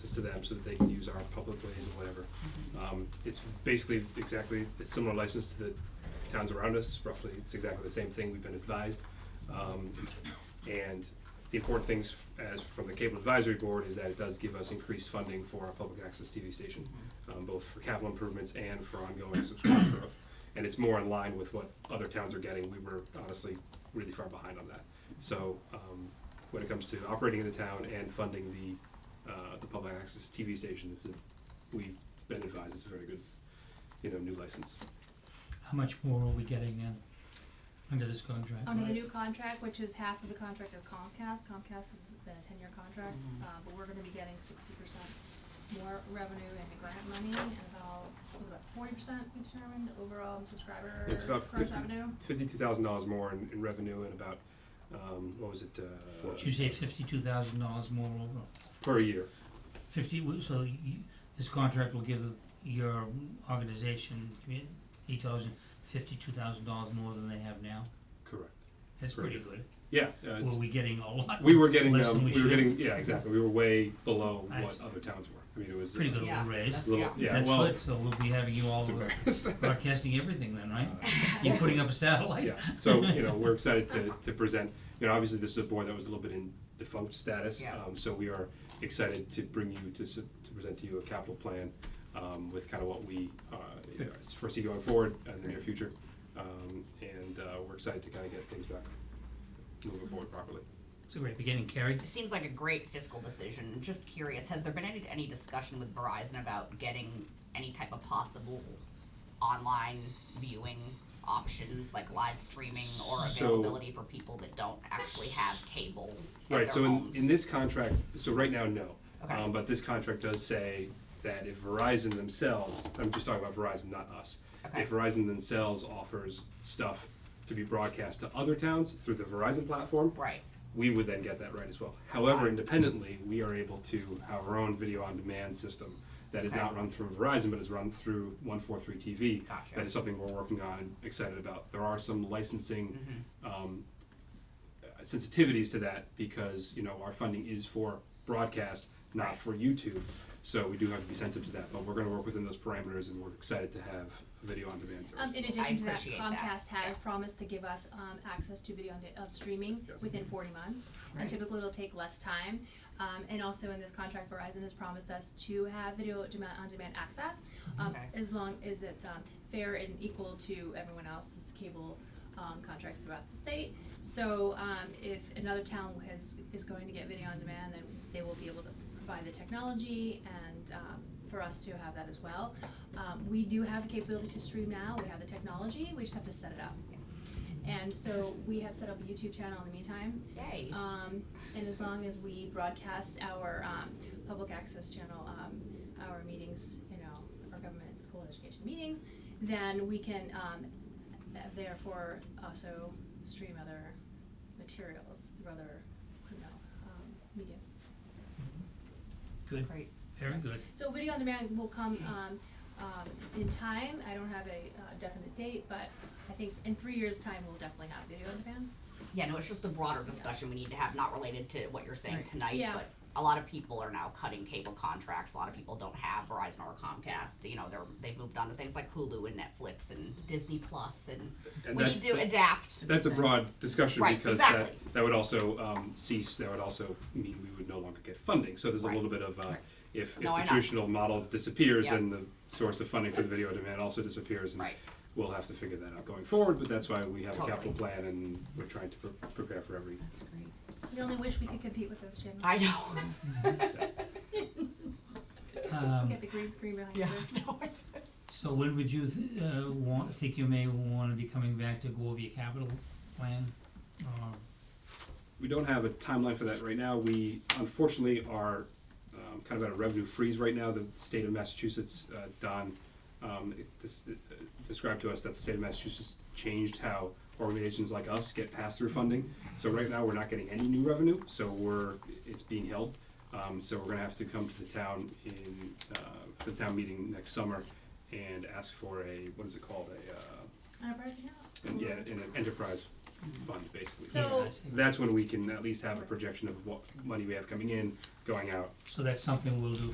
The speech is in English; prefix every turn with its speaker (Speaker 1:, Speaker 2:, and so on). Speaker 1: access to them so that they can use our public ways and whatever. Um, it's basically exactly, it's similar license to the towns around us, roughly, it's exactly the same thing, we've been advised. Um, and the important things f- as from the cable advisory board is that it does give us increased funding for our public access TV station, um, both for capital improvements and for ongoing subscriber growth. And it's more in line with what other towns are getting, we were honestly really far behind on that. So, um, when it comes to operating in the town and funding the uh, the public access TV station. It's a, we've been advised it's a very good, you know, new license.
Speaker 2: How much more are we getting in under this contract?
Speaker 3: Under the new contract, which is half of the contract of Comcast, Comcast has been a ten-year contract,
Speaker 1: Mm-hmm.
Speaker 3: uh, but we're gonna be getting sixty percent more revenue and grant money, and about, was it about forty percent we determined overall in subscriber
Speaker 1: It's about
Speaker 3: gross
Speaker 1: 50.
Speaker 3: revenue?
Speaker 1: Fifty-two thousand dollars more in, in revenue and about, um, what was it, uh,
Speaker 2: Did you say fifty-two thousand dollars more over
Speaker 1: per year?
Speaker 2: fifty, w- so you, this contract will give your organization, commu- each thousand, fifty-two thousand dollars more than they have now?
Speaker 1: Correct.
Speaker 2: That's pretty good.
Speaker 1: Yeah, uh, it's-
Speaker 2: Were we getting a lot?
Speaker 1: we were getting,
Speaker 2: less than
Speaker 1: um,
Speaker 2: we
Speaker 1: we were
Speaker 2: should?
Speaker 1: getting, yeah, exactly. We were way below
Speaker 2: I
Speaker 1: what
Speaker 2: see.
Speaker 1: other towns were. I mean, it was.
Speaker 2: Pretty
Speaker 1: uh,
Speaker 2: good little raise.
Speaker 1: a Little, yeah,
Speaker 2: That's
Speaker 1: well,
Speaker 2: good, so we'll be having you all
Speaker 1: it's
Speaker 2: over
Speaker 1: embarrassing.
Speaker 2: broadcasting everything then, right?
Speaker 1: Uh,
Speaker 2: You're putting up a satellite?
Speaker 1: Yeah, so, you know, we're excited to, to present, you know, obviously this is a board that was a little bit in defunct status.
Speaker 4: Yeah.
Speaker 1: Um, so we are excited to bring you, to, s- to present to you a capital plan, um, with kind of what we, uh, you know, foresee going forward in the near future. Um, and, uh, we're excited to kind of get things back, moving forward properly.
Speaker 2: It's a great beginning, Carrie.
Speaker 4: It seems like a great fiscal decision. Just curious, has there been any, any discussion with Verizon about getting any type of possible online viewing options, like live streaming or
Speaker 1: So-
Speaker 4: availability for people that don't actually have cable at
Speaker 1: Right,
Speaker 4: their
Speaker 1: so in,
Speaker 4: homes?
Speaker 1: in this contract, so right now, no.
Speaker 4: Okay.
Speaker 1: Um, but this contract does say that if Verizon themselves, I'm just talking about Verizon, not us.
Speaker 4: Okay.
Speaker 1: If Verizon themselves offers stuff to be broadcast to other towns through the Verizon platform,
Speaker 4: right.
Speaker 1: we would then get that right as well. However, independently, we are able to have our own video on demand system that is
Speaker 4: Okay.
Speaker 1: not run through Verizon, but is run through 143 TV.
Speaker 4: Gotcha.
Speaker 1: That is something we're working on and excited about. There are some licensing
Speaker 4: Mm-hmm.
Speaker 1: um, uh, sensitivities to that because you know our funding is for broadcast, not
Speaker 4: Right.
Speaker 1: for YouTube. So we do have to be sensitive to that, but we're going to work within those parameters, and we're excited to have a video on demand service.
Speaker 3: Um, in addition to that,
Speaker 4: appreciate that.
Speaker 3: Comcast has
Speaker 4: Yeah.
Speaker 3: promised to give us, um, access to video on, de- of streaming
Speaker 1: Yes.
Speaker 3: within forty months. And
Speaker 4: Right.
Speaker 3: typically it'll take less time, um, and also in this contract Verizon has promised us to have video demand, on-demand access, um,
Speaker 4: Okay.
Speaker 3: as long as it's, um, fair and equal to everyone else's cable, um, contracts throughout the state. So, um, if another town has, is going to get video on demand, then they will be able to provide the technology and, um, for us to have that as well. Um, we do have the capability to stream now, we have the technology, we just have to set it up. And so we have set up a YouTube channel in the meantime,
Speaker 4: Yay.
Speaker 3: um, and as long as we broadcast our, um, public access channel, um, our meetings, you know, our government, school, and education meetings, then we can, um, th- therefore also stream other materials through other, you know, um, mediums.
Speaker 2: Good,
Speaker 4: great.
Speaker 2: very good.
Speaker 3: So video on demand will come, um, um, in time, I don't have a uh, definite date, but I think in three years' time, we'll definitely have video on demand.
Speaker 4: Yeah, no, it's just a broader discussion we need to have, not related to what you're saying tonight,
Speaker 3: Yeah.
Speaker 4: but a lot of people are now cutting cable contracts. A lot of people don't have Verizon or Comcast. You know, they're they've moved on to things like Hulu and Netflix and Disney Plus, and,
Speaker 1: And
Speaker 4: we need
Speaker 1: that's
Speaker 4: to
Speaker 1: the-
Speaker 4: adapt.
Speaker 1: That's a broad discussion
Speaker 4: Right,
Speaker 1: because
Speaker 4: exactly.
Speaker 1: that, that would also um, cease, that would also mean we would no longer get funding. So there's a
Speaker 4: Right.
Speaker 1: little bit of, uh, if, if
Speaker 4: No,
Speaker 1: the
Speaker 4: I know.
Speaker 1: traditional model disappears,
Speaker 4: Yeah.
Speaker 1: then the source of funding for the video on demand also disappears. and
Speaker 4: Right.
Speaker 1: We'll have to figure that out going forward, but that's why we have a
Speaker 4: Totally.
Speaker 1: capital plan and we're trying to pre- prepare for every.
Speaker 3: We only wish we could compete with those channels.
Speaker 4: I know.
Speaker 2: Um,
Speaker 3: Get the green screen behind
Speaker 4: Yeah.
Speaker 3: us.
Speaker 4: I know.
Speaker 2: so when would you, th- uh, want, think you may wanna be coming back to go over your capital plan? um, Or
Speaker 1: We don't have a timeline for that right now. We unfortunately are um, kind of at a revenue freeze right now. The state of Massachusetts, uh, Don, um, it dis- it, uh, described to us that the state of Massachusetts changed how organizations like us get pass-through funding. So right now, we're not getting any new revenue, so we're, it's being held. Um, So we're gonna have to come to the town in, uh, for the town meeting next summer and ask for a, what is it called, a, uh,
Speaker 3: On a person, yeah.
Speaker 1: an- yeah, an enterprise fund, basically.
Speaker 3: So-
Speaker 2: Yeah, I see.
Speaker 1: That's when we can at least have a projection of what money we have coming in, going out,
Speaker 2: So that's something we'll do